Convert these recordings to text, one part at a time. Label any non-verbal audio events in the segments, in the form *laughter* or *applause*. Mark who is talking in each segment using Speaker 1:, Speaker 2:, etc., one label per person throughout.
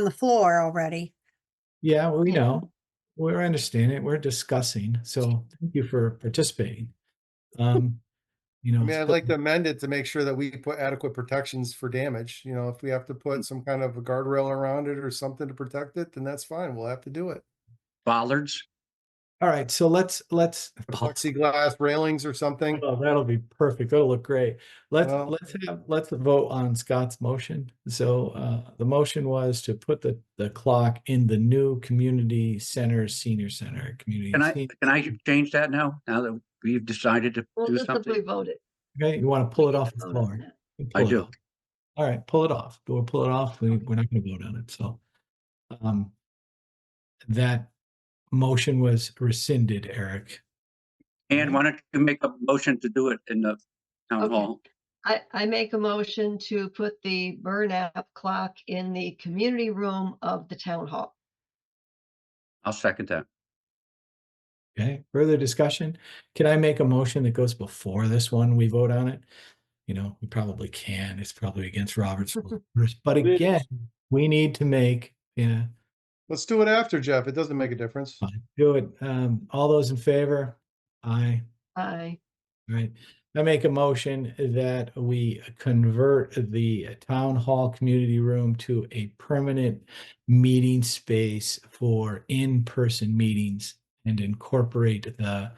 Speaker 1: on the floor already.
Speaker 2: Yeah, we
Speaker 1: Yeah.
Speaker 3: Mm-hmm.
Speaker 2: know. We're understanding. We're discussing. So thank you for participating. Um, you know.
Speaker 3: Hmm. I mean, I'd
Speaker 2: so-
Speaker 3: like to amend it to make sure that we put adequate protections for damage. You know, if we have to put some kind of a guardrail around it or something to protect it, then that's fine. We'll have to do it.
Speaker 4: bollards.
Speaker 2: All right, so let's, let's.
Speaker 3: Plexiglass railings or something.
Speaker 2: Oh, that'll be perfect. That'll look great. Let's,
Speaker 3: Well-
Speaker 2: let's have, let's vote on Scott's motion. So, uh, the motion was to put the, the clock in the new community center, senior center, community.
Speaker 4: Can I,
Speaker 2: sen-
Speaker 4: can I change that now? Now that we've decided to
Speaker 5: Well,
Speaker 4: do
Speaker 5: just simply
Speaker 4: something?
Speaker 5: vote it.
Speaker 2: Okay, you want to pull it off the
Speaker 5: Vote on
Speaker 2: floor?
Speaker 5: that.
Speaker 2: You
Speaker 4: I
Speaker 2: pull it
Speaker 4: do.
Speaker 2: off. All right, pull it off. We'll pull it off. We, we're not going to vote on it. So, um, that motion was rescinded, Eric.
Speaker 4: And why don't you make a motion to do it in the town
Speaker 5: Okay.
Speaker 4: hall?
Speaker 5: I, I make a motion to put the burn app clock in the community room of the town hall.
Speaker 4: I'll second that.
Speaker 2: Okay, further discussion? Can I make a motion that goes before this one? We vote on it? You know, we probably can. It's probably against
Speaker 3: *laughs*
Speaker 2: Robert's rules. But
Speaker 3: It is.
Speaker 2: again, we need to make, yeah,
Speaker 3: Let's do it after, Jeff. It doesn't make a difference.
Speaker 2: fine, do it. Um, all those in favor? Aye.
Speaker 5: I,
Speaker 2: Right. I make a motion that we convert the town hall community room to a permanent meeting space for in-person meetings and incorporate the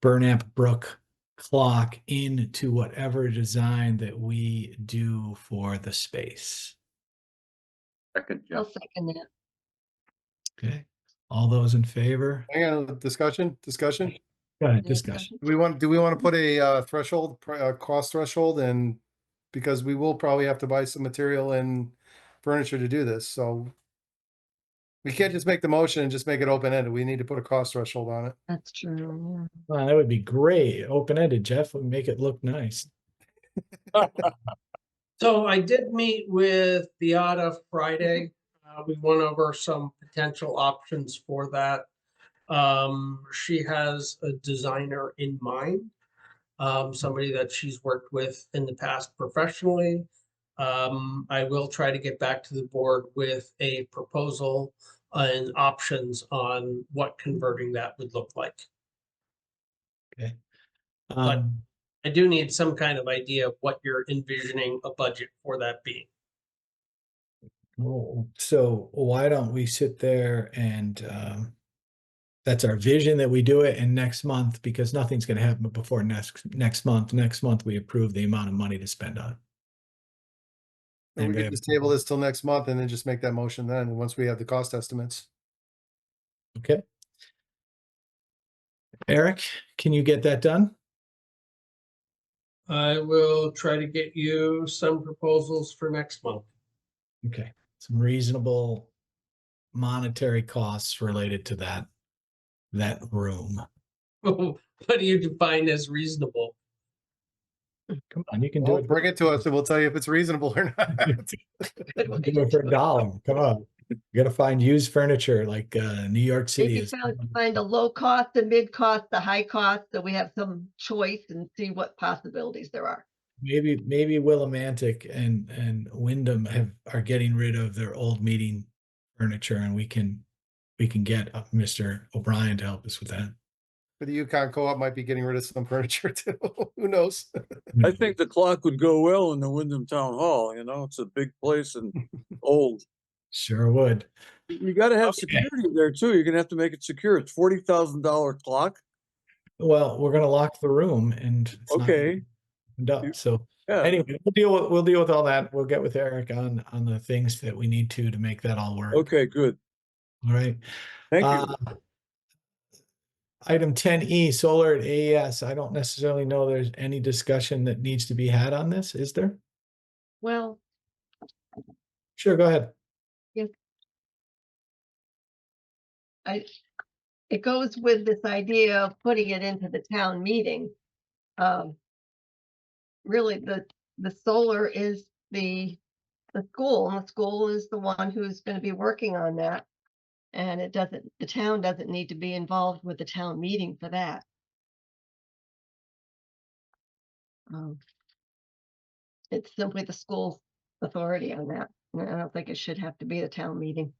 Speaker 2: Burnap Brook clock into whatever design that we do for the space.
Speaker 4: Second,
Speaker 5: I'll
Speaker 4: Jeff.
Speaker 5: second that.
Speaker 2: Okay. All those in favor?
Speaker 3: Hang on, discussion, discussion.
Speaker 2: Go ahead,
Speaker 5: Any
Speaker 2: discussion.
Speaker 5: discussion?
Speaker 3: Do we want, do we want to put a uh, threshold, pr- uh, cost threshold and because we will probably have to buy some material and furniture to do this, so we can't just make the motion and just make it open ended. We need to put a cost threshold on it.
Speaker 5: That's true.
Speaker 2: Wow, that would be great. Open-ended, Jeff, would make it look nice.
Speaker 6: So I did meet with Beata Friday. Uh, we went over some potential options for that. Um, she has a designer in mind, um, somebody that she's worked with in the past professionally. Um, I will try to get back to the board with a proposal and options on what converting that would look like.
Speaker 2: Um,
Speaker 6: I do need some kind of idea of what you're envisioning a budget for that being.
Speaker 2: Well, Oh, so why don't we sit there and um, that's our vision that we do it and next month because nothing's going to happen before next next month. Next month we approve the amount of money to spend on. it.
Speaker 3: And we
Speaker 2: Anybody have
Speaker 3: could
Speaker 2: a
Speaker 3: just table
Speaker 2: problem?
Speaker 3: this till next month and then just make that motion then, once we have the cost estimates.
Speaker 2: Okay. Eric, can you get that done?
Speaker 6: I will try to get you some proposals for next month. *laughs*
Speaker 2: Okay, some reasonable monetary costs related to that that room.
Speaker 6: What do you define as reasonable?
Speaker 2: Come on, you can do
Speaker 3: Well,
Speaker 2: it.
Speaker 3: bring it to us and we'll tell you if it's reasonable or
Speaker 2: *laughs*
Speaker 3: not.
Speaker 2: I'll give it for a dollar. Come on. You gotta find used furniture like uh New York City
Speaker 5: Maybe
Speaker 2: is.
Speaker 5: found- find a low cost, a mid cost, a high cost, so we have some choice and see what possibilities there are.
Speaker 2: Maybe maybe Willimantic and and Wyndham have are getting rid of their old meeting furniture and we can we can get uh, Mr. O'Brien to help us with that.
Speaker 3: But the Yukon Co-op might be getting rid of some furniture *laughs* too. Who knows?
Speaker 7: I think the clock would go well in the Wyndham Town Hall, you know, it's a big place and old.
Speaker 2: Sure would.
Speaker 7: You gotta have
Speaker 2: Okay.
Speaker 7: security there too. You're gonna have to make it secure. It's forty thousand dollar clock.
Speaker 2: Well, we're gonna lock the room and it's not
Speaker 7: Okay,
Speaker 2: opened up, so.
Speaker 7: yeah,
Speaker 2: Anyway, we'll deal with, we'll deal with all that. We'll get with Eric on, on the things that we need to, to make that all work.
Speaker 7: okay, good.
Speaker 2: All right.
Speaker 7: Thank you.
Speaker 2: Uh, Item ten E, solar at AES. I don't necessarily know there's any discussion that needs to be had on this, is there?
Speaker 5: Well,
Speaker 2: Sure, go ahead.
Speaker 5: it goes with this idea of putting it into the town meeting. Um, really, the, the solar is the, the school, and the school is the one who's gonna be working on that. And it doesn't, the town doesn't need to be involved with the town meeting for that. Um, It's simply the school's authority on that, I don't think it should have to be a town meeting.